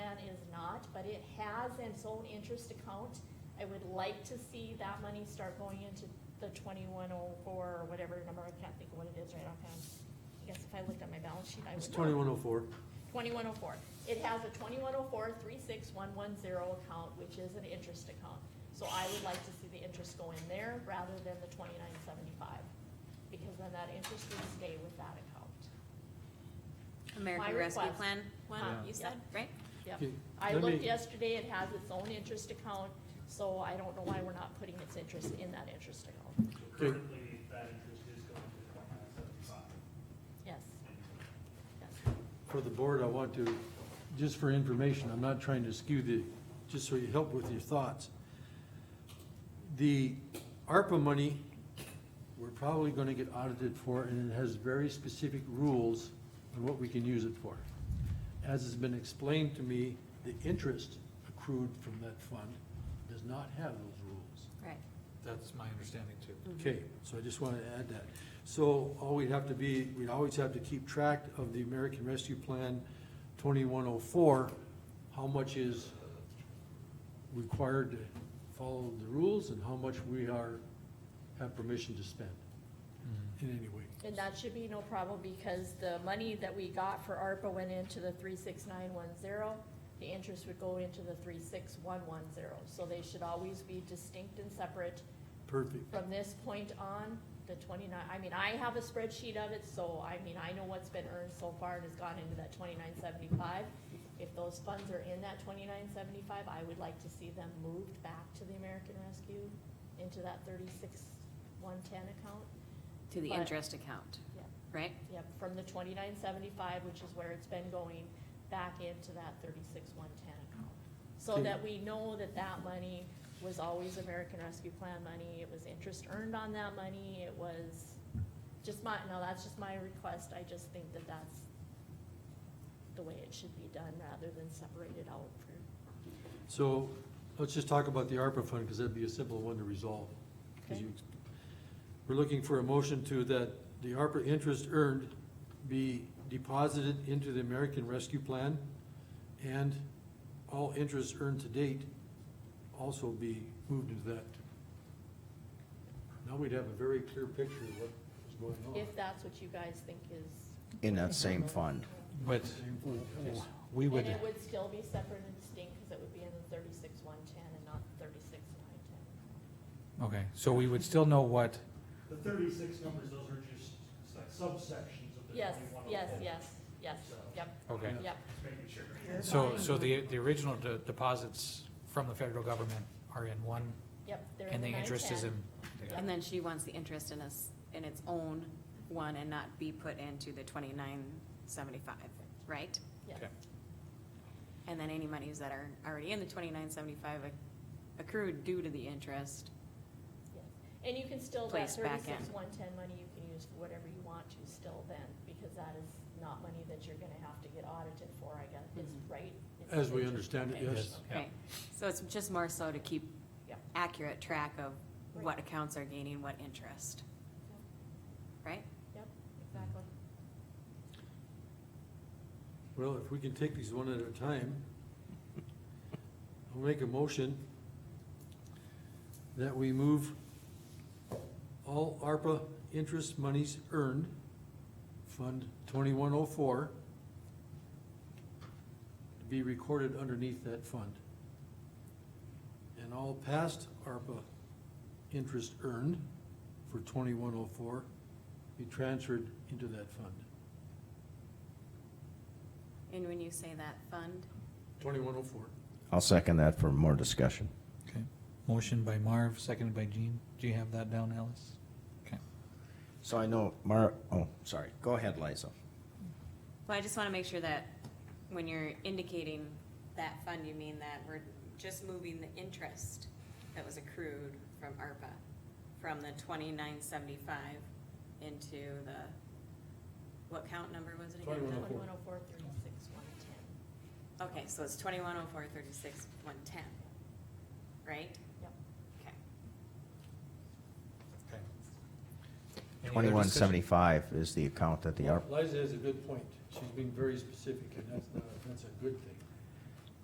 but it has its own interest account. I would like to see that money start going into the twenty-one oh four or whatever number, I can't think of what it is right offhand. I guess if I looked at my balance sheet, I would. It's twenty-one oh four. Twenty-one oh four. It has a twenty-one oh four three six one one zero account, which is an interest account. So I would like to see the interest go in there rather than the twenty-nine seventy-five, because then that interest would stay with that account. My American Rescue request. Plan one, Uh, you yeah. said, right? Yep. Okay, I let me- looked yesterday, it has its own interest account, so I don't know why we're not putting its interest in that interest account. Currently, that interest is going to twenty-nine seventy-five. Yes, yes. For the board, I want to, just for information, I'm not trying to skew the, just so you help with your thoughts. The ARPA money, we're probably gonna get audited for, and it has very specific rules on what we can use it for. As has been explained to me, the interest accrued from that fund does not have those rules. Right. That's my understanding too. Okay, so I just wanted to add that. So all we'd have to be, we'd always have to keep track of the American Rescue Plan twenty-one oh four, how much is required to follow the rules and how much we are, have permission to spend in any way. And that should be no problem, because the money that we got for ARPA went into the three six nine one zero. The interest would go into the three six one one zero, so they should always be distinct and separate. Perfect. From this point on, the twenty-nine, I mean, I have a spreadsheet of it, so I mean, I know what's been earned so far and has gone into that twenty-nine seventy-five. If those funds are in that twenty-nine seventy-five, I would like to see them moved back to the American Rescue into that thirty-six one ten account. To the But- interest account, Yeah. right? Yep, from the twenty-nine seventy-five, which is where it's been going, back into that thirty-six one ten account. So Okay. that we know that that money was always American Rescue Plan money, it was interest earned on that money, it was just my, no, that's just my request, I just think that that's the way it should be done, rather than separate it out for, So let's just talk about the ARPA fund, because that'd be a simple one to resolve. 'Cause Okay. you- We're looking for a motion to that the ARPA interest earned be deposited into the American Rescue Plan and all interest earned to date also be moved into that. Now we'd have a very clear picture of what is going on. if that's what you guys think is. in that same fund. But we And would, it would still be separate and distinct, cause it would be in the thirty-six one ten and not thirty-six nine ten. okay, so we would still know what, The thirty-six numbers, those are just subsections of the Yes, twenty-one oh four. yes, yes, yes, yep, okay. yep. Just making sure. So, so the, the original de- deposits from the federal government are in one, Yep, they're in and the the interest is in. 910. And then she wants the interest in us, in its own one and not be put into the twenty-nine seventy-five, right? Yes, Okay. And then any monies that are already in the twenty-nine seventy-five accrued due to the interest, yes. And you can still, that Placed back thirty-six, in. one ten money, you can use for whatever you want to still then, because that is not money that you're gonna have to get audited for, I guess, is Mhm. right? It's As we interest. understand it, Okay. yes. Yeah. right? So it's just more so to keep Yeah. accurate track of Right. what accounts are gaining what interest, right? Yep, exactly. Well, if we can take these one at a time, I'll make a motion that we move all ARPA interest monies earned, Fund twenty-one oh four, to be recorded underneath that fund. And all past ARPA interest earned for twenty-one oh four be transferred into that fund. And when you say that fund, Twenty-one oh four. I'll second that for more discussion. Okay, motion by Marv, seconded by Jean, do you have that down, Alice? Okay, So I know Mar, oh, sorry, go ahead, Liza. Well, I just want to make sure that when you're indicating that fund, you mean that we're just moving the interest that was accrued from ARPA from the twenty-nine seventy-five into the, what count number was it again? 21. Twenty-one oh four, thirty-six, one ten. Okay, so it's twenty-one oh four thirty-six one ten, right? Yep. Okay. okay. Any other Twenty-one discussion? seventy-five is the account that the ARPA, Liza has a good point. She's being very specific, and that's not, that's a good thing.